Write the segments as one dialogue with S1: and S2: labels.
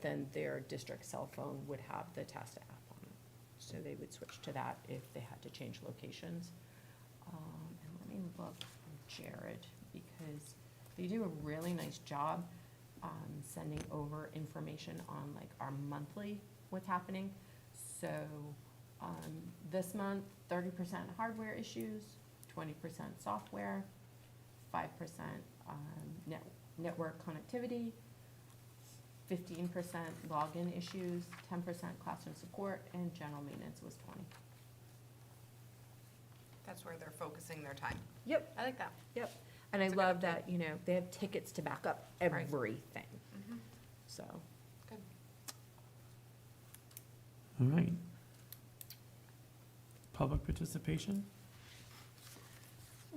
S1: then their district cell phone would have the Tasta app on it. So they would switch to that if they had to change locations. Um, and let me look, for Jared, because they do a really nice job, um, sending over information on like our monthly, what's happening. So, um, this month, thirty percent hardware issues, twenty percent software, five percent, um, net, network connectivity, fifteen percent login issues, ten percent classroom support, and general maintenance was twenty.
S2: That's where they're focusing their time.
S1: Yep.
S2: I like that.
S1: Yep, and I
S2: It's a good
S1: love
S2: update.
S1: that, you know, they have tickets to back up
S2: Right.
S1: everything, so.
S2: Good.
S3: All right. Public participation.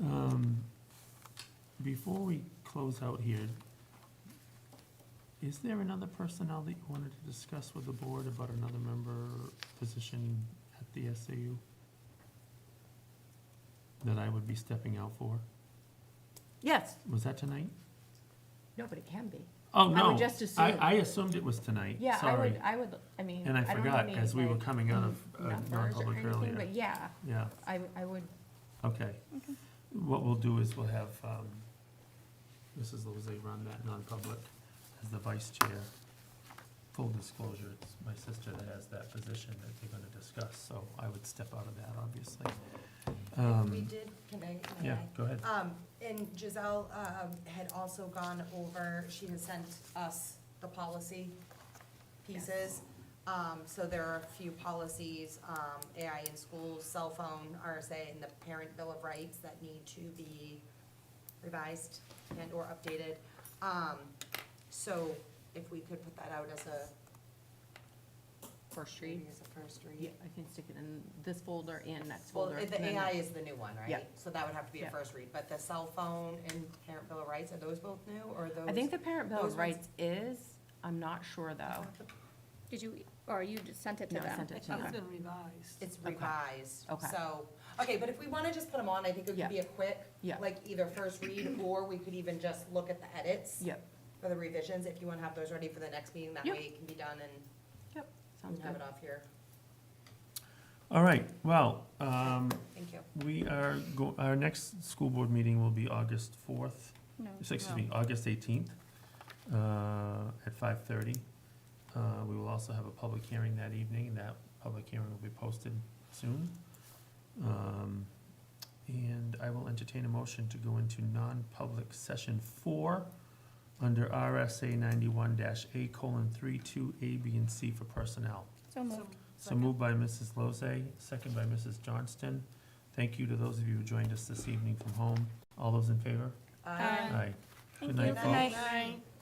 S3: Um, Before we close out here, is there another personnel that you wanted to discuss with the board about another member position at the SAU? That I would be stepping out for?
S1: Yes,
S3: Was that tonight?
S1: no, but it can be.
S3: Oh,
S1: I
S3: no.
S1: would just
S3: I,
S1: assume.
S3: I assumed it was tonight,
S1: Yeah, I
S3: sorry.
S1: would, I would, I mean,
S3: And I
S1: I don't know
S3: forgot,
S1: any,
S3: as we were
S1: like,
S3: coming out of uh,
S1: numbers or
S3: non-public
S1: anything,
S3: earlier.
S1: but yeah,
S3: Yeah.
S1: I, I would,
S3: Okay. What we'll do is we'll have um, Mrs. Lozay run that non-public as the vice chair. Full disclosure, it's my sister that has that position that they're gonna discuss, so I would step out of that, obviously.
S4: We
S3: Um,
S4: did, can I? may
S3: Yeah,
S4: I?
S3: go ahead.
S4: Um, and Giselle, um, had also gone over, she has sent us the policy pieces. Um, so there are a few policies, um, AI in schools, cell phone, RSA, and the parent bill of rights that need to be revised and or updated. Um, so if we could put that out as a,
S1: first read.
S4: maybe as a first
S1: Yeah,
S4: read.
S1: I can stick it in this folder and next
S4: Well,
S1: folder.
S4: the
S1: and then
S4: AI
S1: the-
S4: is the new one, right?
S1: Yeah.
S4: So that would have to be
S1: Yeah.
S4: a first read, but the cell phone and parent bill of rights, are those both new, or are those?
S1: I think the parent bill
S4: those
S1: of
S4: ones-
S1: rights is, I'm not sure though.
S5: Did you, or you just sent it to
S1: No,
S5: them?
S1: I sent it to
S5: Okay.
S1: them.
S4: It's revised,
S1: Okay.
S4: so, okay, but if we wanna just put them on, I think it
S1: Yeah.
S4: could be a quick,
S1: Yeah.
S4: like, either first read, or we could even just look at the edits
S1: Yep,
S4: for the revisions, if you wanna have those ready for the next meeting, that
S1: Yep.
S4: way it can be done and
S1: yep, sounds
S4: have
S1: good.
S4: it off here.
S3: All right, well, um,
S4: Thank you.
S3: we are, go- our next school board meeting will be August fourth,
S5: No.
S3: So, excuse me, August eighteenth, uh, at five thirty. Uh, we will also have a public hearing that evening, that public hearing will be posted soon. Um, and I will entertain a motion to go into non-public session four under RSA ninety-one dash A colon three two A, B, and C for personnel.
S5: So moved.
S3: So moved by Mrs. Lozay, second by Mrs. Johnston. Thank you to those of you who joined us this evening from home. All those in favor?
S4: Aye.
S3: Aye.
S5: Thank
S3: night,
S5: you.
S3: folks.
S4: Night.